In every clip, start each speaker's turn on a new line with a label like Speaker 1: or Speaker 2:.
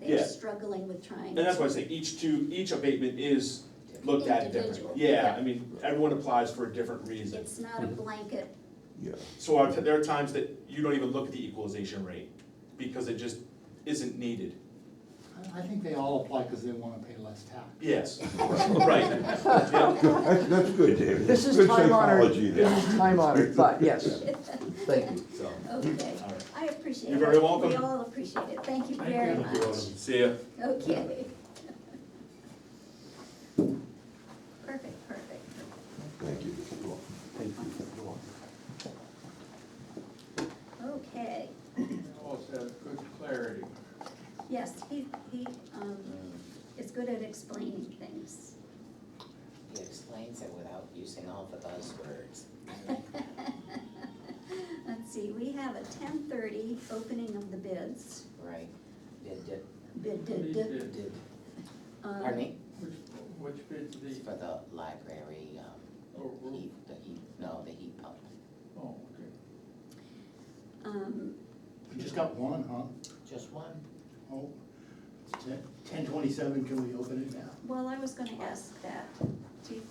Speaker 1: Yeah.
Speaker 2: they're struggling with trying
Speaker 1: And that's why I
Speaker 2: to,
Speaker 1: say each two, each abatement is looked at differently.
Speaker 2: Individual.
Speaker 1: Yeah,
Speaker 2: Yeah.
Speaker 1: I mean, everyone applies for a different reason.
Speaker 2: it's not a blanket,
Speaker 3: Yeah,
Speaker 1: So I- there are times that you don't even look at the equalization rate because it just isn't needed.
Speaker 4: I, I think they all apply because they wanna pay less tax.
Speaker 1: Yes, right. Yeah.
Speaker 3: good, that's, that's good, David.
Speaker 5: This is
Speaker 3: Good
Speaker 5: time honored,
Speaker 3: psychology there.
Speaker 5: this is time honored, but yes, thank you.
Speaker 1: So,
Speaker 2: okay,
Speaker 1: all right.
Speaker 2: I appreciate it.
Speaker 1: You're very welcome.
Speaker 2: We all appreciate it, thank you very much.
Speaker 1: See ya.
Speaker 2: Okay. Perfect, perfect, perfect.
Speaker 3: Thank you.
Speaker 2: Okay,
Speaker 6: Also, good clarity.
Speaker 2: yes, he, he, um, is good at explaining things.
Speaker 7: He explains it without using all the buzzwords. I like that.
Speaker 2: Let's see, we have a ten thirty opening of the bids,
Speaker 7: Right, did, did,
Speaker 2: bid, did, did.
Speaker 6: Did-
Speaker 7: did,
Speaker 2: um,
Speaker 7: pardon me,
Speaker 6: Which which bid did
Speaker 7: It's
Speaker 6: he,
Speaker 7: for the library, um, heat, the heat, no, the heat pump.
Speaker 6: oh, okay.
Speaker 2: Um,
Speaker 4: You just got one, huh?
Speaker 7: Just one?
Speaker 4: Oh, ten twenty-seven, can we open it now?
Speaker 2: well, I was gonna ask that, do you, can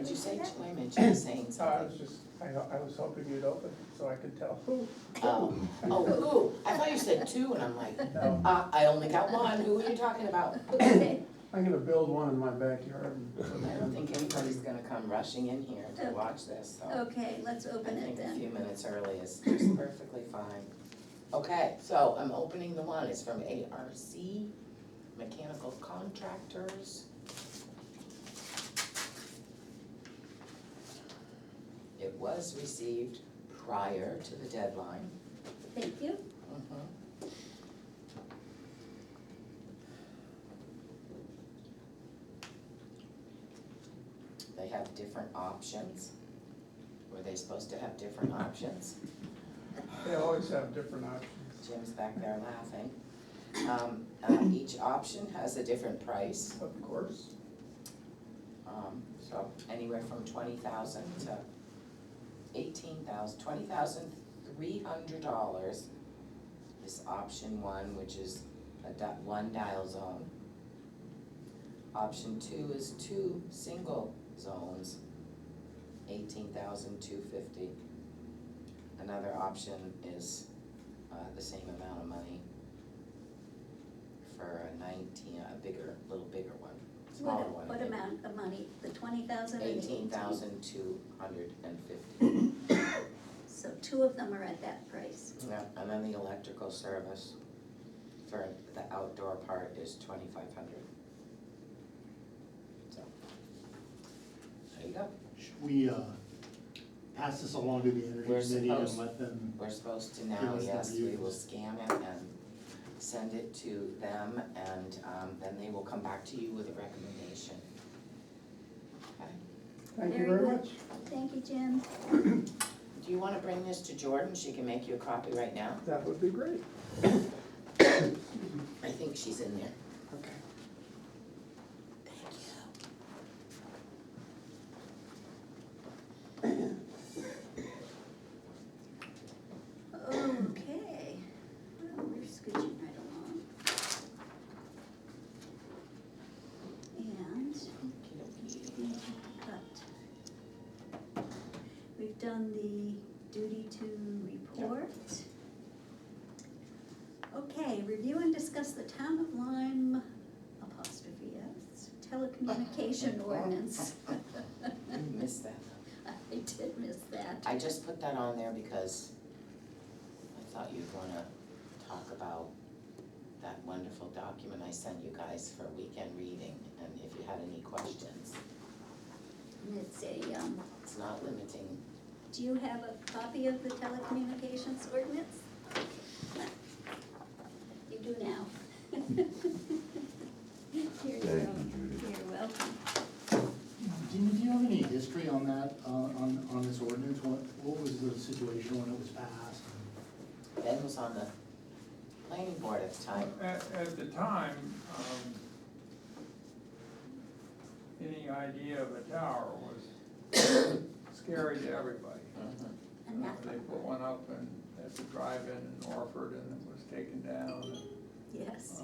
Speaker 7: What'd
Speaker 2: we
Speaker 7: you
Speaker 2: say
Speaker 7: say,
Speaker 2: that?
Speaker 7: Jim, you were saying
Speaker 8: So I was
Speaker 7: something?
Speaker 8: just, I, I was hoping you'd open, so I could tell.
Speaker 7: Oh, oh, ooh, I thought you said two, and I'm like,
Speaker 8: No,
Speaker 7: uh, I only got one, who are you talking about?
Speaker 2: Okay,
Speaker 8: I'm gonna build one in my backyard. and-
Speaker 7: I don't think anybody's gonna come rushing in here to watch this, so.
Speaker 2: Okay, let's
Speaker 7: I
Speaker 2: open it
Speaker 7: think a
Speaker 2: then.
Speaker 7: few minutes early is is perfectly fine. Okay, so I'm opening the one, it's from ARC, Mechanical Contractors. It was received prior to the deadline.
Speaker 2: Thank you.
Speaker 7: Mhm. They have different options. Were they supposed to have different options?
Speaker 8: They always have different options.
Speaker 7: Jim's back there laughing. Um, uh, each option has a different price,
Speaker 8: Of course,
Speaker 7: um, so anywhere from twenty thousand to eighteen thousand, twenty thousand three hundred dollars is option one, which is a di- one dial zone. Option two is two single zones, eighteen thousand two fifty. Another option is, uh, the same amount of money for a nineteen, a bigger, little bigger one,
Speaker 2: What,
Speaker 7: smaller one. I
Speaker 2: what
Speaker 7: think.
Speaker 2: amount of money? The twenty thousand and eighteen?
Speaker 7: Eighteen thousand two hundred and fifty.
Speaker 2: So two of them are at that price.
Speaker 7: And then the electrical service for the outdoor part is twenty-five hundred. So. There you go.
Speaker 4: Should we, uh, pass this along to the
Speaker 7: We're
Speaker 4: energy committee and
Speaker 7: supposed-
Speaker 4: let them,
Speaker 7: We're supposed to now,
Speaker 4: Give us
Speaker 7: yes,
Speaker 4: the
Speaker 7: we will
Speaker 4: views.
Speaker 7: scan it and send it to them and um then they will come back to you with a recommendation. Okay.
Speaker 8: thank you
Speaker 2: Very
Speaker 8: very
Speaker 2: good.
Speaker 8: much.
Speaker 2: Thank you, Jim.
Speaker 7: Do you wanna bring this to Jordan? She can make you a copy right now.
Speaker 8: That would be great.
Speaker 7: I think she's in there.
Speaker 8: Okay.
Speaker 7: Thank you.
Speaker 2: Okay, well, we're scooching right along. And we have got, we've done the duty to report. Okay, review and discuss the town of Lyme apostrophe S telecommunication ordinance.
Speaker 7: I missed that.
Speaker 2: I did miss that.
Speaker 7: I just put that on there because I thought you'd wanna talk about that wonderful document I sent you guys for weekend reading, and if you had any questions.
Speaker 2: And It's a, um,
Speaker 7: It's not limiting,
Speaker 2: Do you have a copy of the telecommunications ordinance? You do now. Here you
Speaker 3: Thank
Speaker 2: go.
Speaker 3: you, Judy.
Speaker 2: You're welcome.
Speaker 4: do you, do you have any history on that, uh, on, on this ordinance? What, what was the situation when it was passed?
Speaker 7: Ben was on the planning board at the time.
Speaker 6: At, at the time, um, any idea of a tower was scary to everybody.
Speaker 7: Mhm.
Speaker 2: And
Speaker 6: Uh,
Speaker 2: that
Speaker 6: They
Speaker 2: one,
Speaker 6: put one up and at the drive-in in Orford, and it was taken down, and
Speaker 2: yes.